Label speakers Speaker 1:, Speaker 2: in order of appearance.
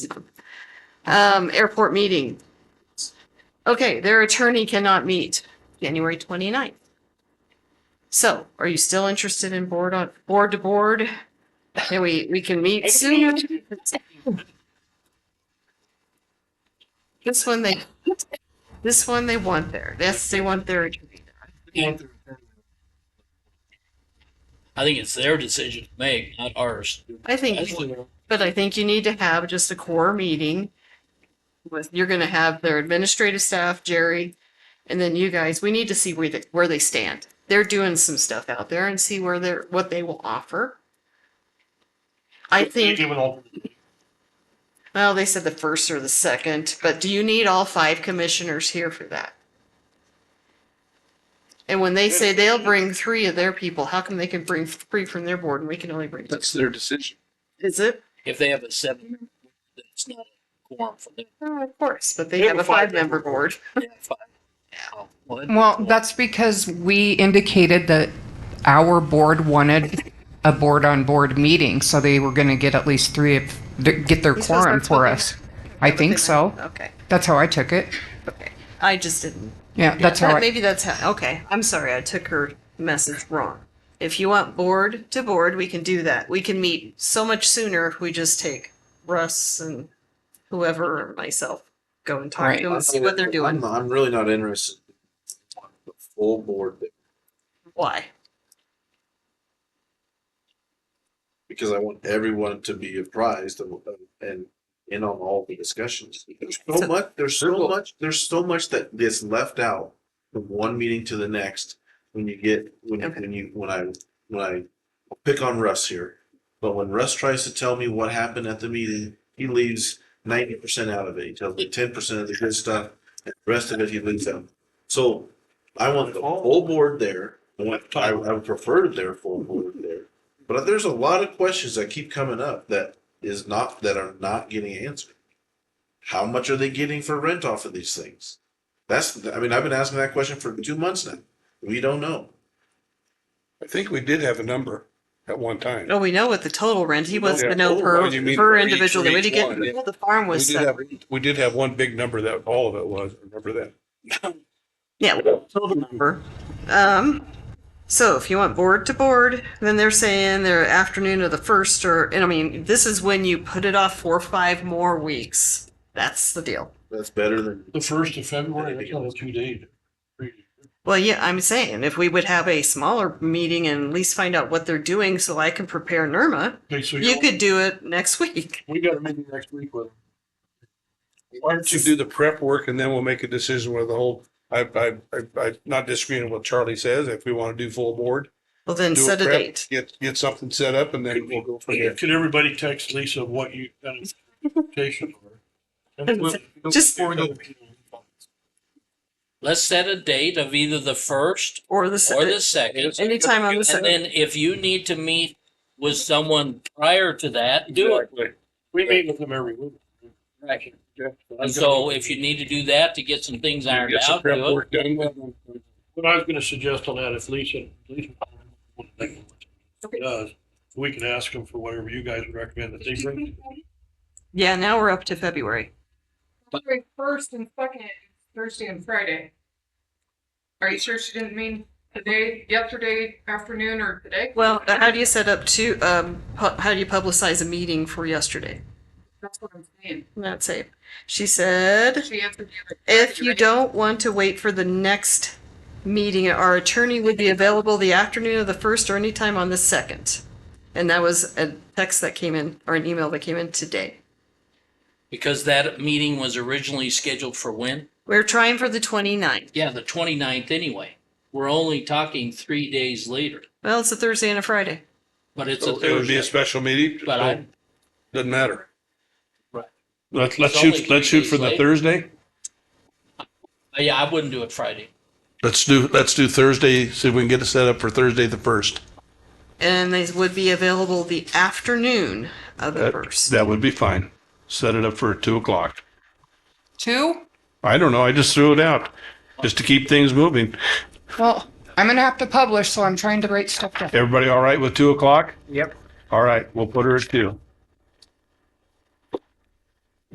Speaker 1: Um, airport meeting. Okay, their attorney cannot meet January 29th. So are you still interested in board on, board to board? Can we, we can meet sooner? This one they, this one they want there. Yes, they want their attorney.
Speaker 2: I think it's their decision to make, not ours.
Speaker 1: I think, but I think you need to have just a core meeting with, you're gonna have their administrative staff, Jerry, and then you guys, we need to see where they, where they stand. They're doing some stuff out there and see where they're, what they will offer. I think.
Speaker 3: Even all-
Speaker 1: Well, they said the first or the second, but do you need all five commissioners here for that? And when they say they'll bring three of their people, how come they can bring three from their board and we can only bring two?
Speaker 4: That's their decision.
Speaker 1: Is it?
Speaker 2: If they have a seven, it's not a quorum for them.
Speaker 1: Oh, Of course, but they have a five-member board.
Speaker 2: They have five. Oh, well, then-
Speaker 5: Well, that's because we indicated that our board wanted a board-on-board meeting, so they were going to get at least three of, th- get their
Speaker 1: These was
Speaker 5: quorum
Speaker 1: their fucking-
Speaker 5: for us. I think so.
Speaker 1: Okay,
Speaker 5: That's how I took it.
Speaker 1: okay. I just didn't.
Speaker 5: Yeah, that's how I,
Speaker 1: Maybe that's how, okay, I'm sorry, I took her message wrong. If you want board to board, we can do that. We can meet so much sooner if we just take Russ and whoever or myself, go and talk to
Speaker 5: Right.
Speaker 1: them and see what they're
Speaker 4: I'm,
Speaker 1: doing.
Speaker 4: I'm really not interested. in the Full board, there
Speaker 1: Why?
Speaker 4: because I want everyone to be apprised of, of- and in on all the discussions. There's
Speaker 1: So-
Speaker 4: so much, there's so much, there's so much that gets left out from one meeting to the next. When you get, when, you-
Speaker 1: Okay.
Speaker 4: when you, when I, when I I'll pick on Russ here. But when Russ tries to tell me what happened at the meeting, he leaves ninety percent out of it. He tells me ten percent of the good stuff, and the rest of it he leaves out. So I want the whole board there. I want, I, I would prefer their full board there. But there's a lot of questions that keep coming up that is not, that are not getting answered. How much are they getting for rent off of these things? That's, I mean, I've been asking that question for two months now. We don't know.
Speaker 6: I think we did have a number at one time.
Speaker 1: Oh, we know what the total rent, he wants to
Speaker 6: Yeah.
Speaker 1: know per,
Speaker 6: Oh, you mean
Speaker 1: per
Speaker 6: for each-
Speaker 1: individual,
Speaker 6: for
Speaker 1: we
Speaker 6: each
Speaker 1: didn't get,
Speaker 6: one, yeah.
Speaker 1: well, the farm
Speaker 6: We
Speaker 1: was,
Speaker 6: did have,
Speaker 1: separate.
Speaker 6: we did have one big number that all of it was, remember that?
Speaker 1: yeah, total number. Um, so if you want board to board, then they're saying their afternoon of the first or, and I mean, this is when you put it off four, or five more weeks. That's the deal.
Speaker 4: That's better than
Speaker 3: The first of February, that's only two days.
Speaker 1: Well, yeah, I'm saying if we would have a smaller meeting and at least find out what they're doing so I can prepare Nirma,
Speaker 3: Okay, so
Speaker 1: you
Speaker 3: you,
Speaker 1: could do it next week.
Speaker 3: we got a meeting next week with them.
Speaker 6: Why don't you do the prep work and then we'll make a decision where the whole, I, I, I- I'm not disagreeing with what Charlie says, if we want to do full board.
Speaker 1: Well, then
Speaker 6: do
Speaker 1: set a
Speaker 6: prep,
Speaker 1: date.
Speaker 6: Get, get something set up and then we'll go from there.
Speaker 3: Could everybody text Lisa what you, kind of expectations were?
Speaker 1: Just-
Speaker 2: Let's set a date of either the first
Speaker 1: Or the, se-
Speaker 2: or the second.
Speaker 1: anytime on the
Speaker 2: And
Speaker 1: second.
Speaker 2: then if you need to meet with someone prior to that, do it.
Speaker 3: We meet with them every week.
Speaker 2: Right. And so if you need to do that to get some things ironed
Speaker 6: Get some
Speaker 2: out,
Speaker 6: prep
Speaker 2: do it.
Speaker 6: work done.
Speaker 3: What I was gonna suggest on that, if Lisa, Lisa does, we can ask them for whatever you guys would recommend that they bring.
Speaker 1: Yeah, now we're up to February.
Speaker 7: February first and second, Thursday and Friday. Are you sure she didn't mean today, yesterday afternoon or today?
Speaker 1: Well, uh, how do you set up to, um, pu- how do you publicize a meeting for yesterday?
Speaker 7: That's what I'm saying.
Speaker 1: That's it. She said,
Speaker 7: She answered me like.
Speaker 1: if you don't want to wait for the next meeting, our attorney would be available the afternoon of the first or anytime on the second. And that was a text that came in or an email that came in today.
Speaker 2: Because that meeting was originally scheduled for when?
Speaker 1: We're trying for the 29th.
Speaker 2: Yeah, the 29th anyway. We're only talking three days later,
Speaker 1: Well, it's a Thursday and a Friday.
Speaker 2: but it's a
Speaker 6: So It would be
Speaker 2: Thursday.
Speaker 6: a special meeting,
Speaker 2: But I,
Speaker 6: so doesn't matter.
Speaker 2: Right.
Speaker 6: Let's, let's
Speaker 2: It's only
Speaker 6: shoot, let's
Speaker 2: three
Speaker 6: shoot for
Speaker 2: days later.
Speaker 6: the Thursday.
Speaker 2: yeah, I wouldn't do it Friday.
Speaker 6: Let's do, let's do Thursday, see if we can get it set up for Thursday the first.
Speaker 1: And they would be available the afternoon of the
Speaker 6: That-
Speaker 1: first.
Speaker 6: That would be fine. Set it up for two o'clock.
Speaker 5: two?
Speaker 6: I don't know. I just threw it out just to keep things moving.
Speaker 5: Well, I'm going to have to publish, so I'm trying to write stuff down.
Speaker 6: Everybody all right with two o'clock?
Speaker 5: Yep.
Speaker 6: All right, we'll put her at two.